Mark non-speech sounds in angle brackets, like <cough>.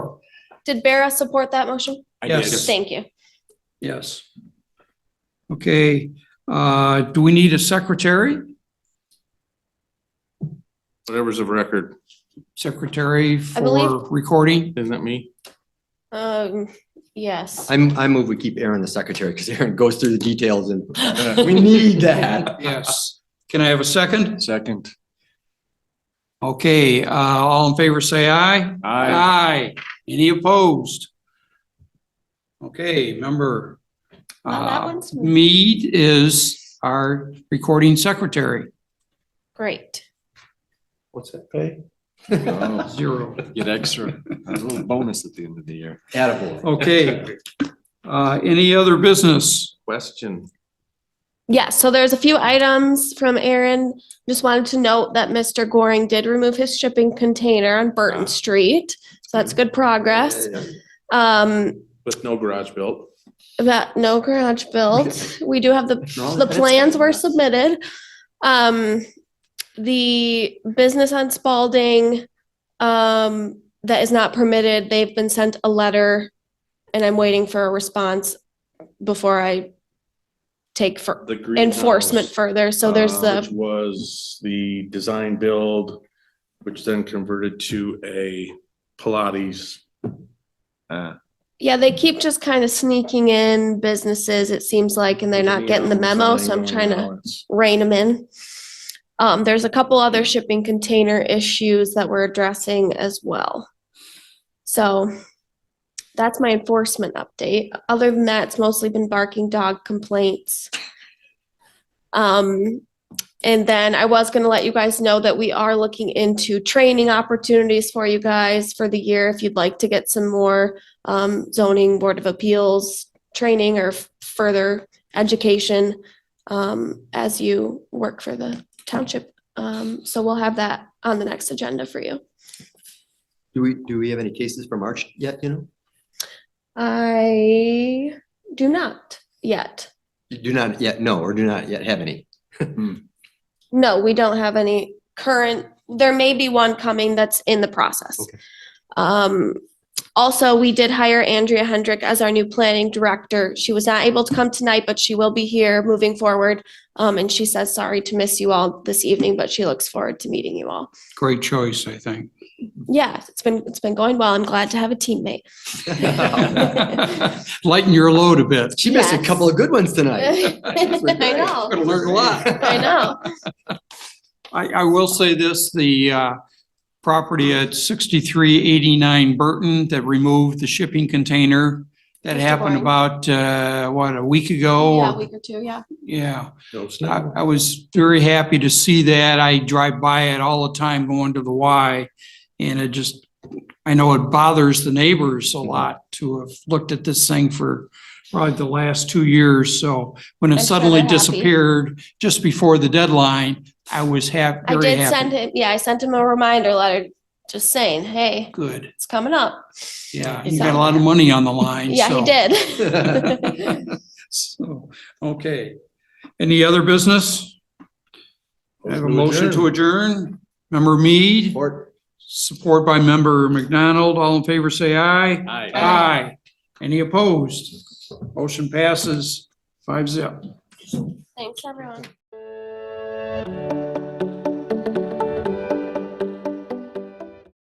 Did Vera support that motion? I Yes. did. Thank you. Yes. Okay, uh, do we need a secretary? Whatever's of record, Secretary for believe- recording? isn't it me? Um, yes. I'm, I move we keep Aaron the secretary because Aaron goes through the details and we need that. Yes. Can I have a second? Second. Okay, uh, all in favor, say aye. I, Aye. Any opposed? Okay, member. Well, that uh, one's- Mead is our recording secretary, Great. What's that pay? Oh, zero. get extra, a little bonus at the end of the year. Attaboy. Okay. Uh, any other business? Question, Yeah, so there's a few items from Aaron. Just wanted to note that Mr. Goring did remove his shipping container on Ah. Burton Street. So that's good progress. Um, with no garage built. that no garage built. We do have the, No, the that's- plans were submitted. Um, the business on Spalding, um, that is not permitted, they've been sent a letter and I'm waiting for a response before I take for The greenhouse, enforcement further. So there's uh, the Which was the design build, which then converted to a Pilates. Uh, Yeah, they keep just kind of sneaking in businesses, it seems like, and they're not getting the memo, so I'm trying to rein them in. Um, there's a couple other shipping container issues that we're addressing as well. So that's my enforcement update. Other than that, it's mostly been barking dog complaints. Um, and then I was gonna let you guys know that we are looking into training opportunities for you guys for the year if you'd like to get some more um, zoning board of appeals training or f- further education um, as you work for the township. Um, so we'll have that on the next agenda for you. Do we, do we have any cases from March yet, you know? I do not yet. You Do not yet, no, or do not yet have <laughs> any. No, we don't have any current, there may be one coming that's in the process. Okay. Um, also, we did hire Andrea Hendrick as our new planning director. She was not able to come tonight, but she will be here moving forward. Um, and she says, sorry to miss you all this evening, but she looks forward to meeting you all. Great choice, I think. Yeah, it's been, it's been going well. I'm glad to have a teammate. <laughs> Lighten your load a bit. She missed a couple of good <laughs> ones tonight. I know, Gonna learn a lot. I know. I, I will say this, the, uh, property at sixty-three eighty-nine Burton that removed the shipping container. That Mr. happened Warren. about, uh, what, a week Yeah, a ago? week or two, yeah. Yeah, No, it's I, not. I was very happy to see that. I drive by it all the time going to the Y. And it just, I know it bothers the neighbors a lot to have looked at this thing for probably the last two years. So when I'm it sure suddenly they're happy. disappeared just before the deadline, I was hap- I very happy. did send him, yeah, I sent him a reminder letter just saying, hey, Good, it's coming up. yeah, He you got saw a lot of money on the line, <laughs> Yeah, he so- <laughs> did. <laughs> So, okay, any other business? I have a motion to adjourn, member Mead, Or- support by member McDonald, all in favor, say aye. Aye. Aye, any opposed? Motion passes five zip. Thanks, everyone.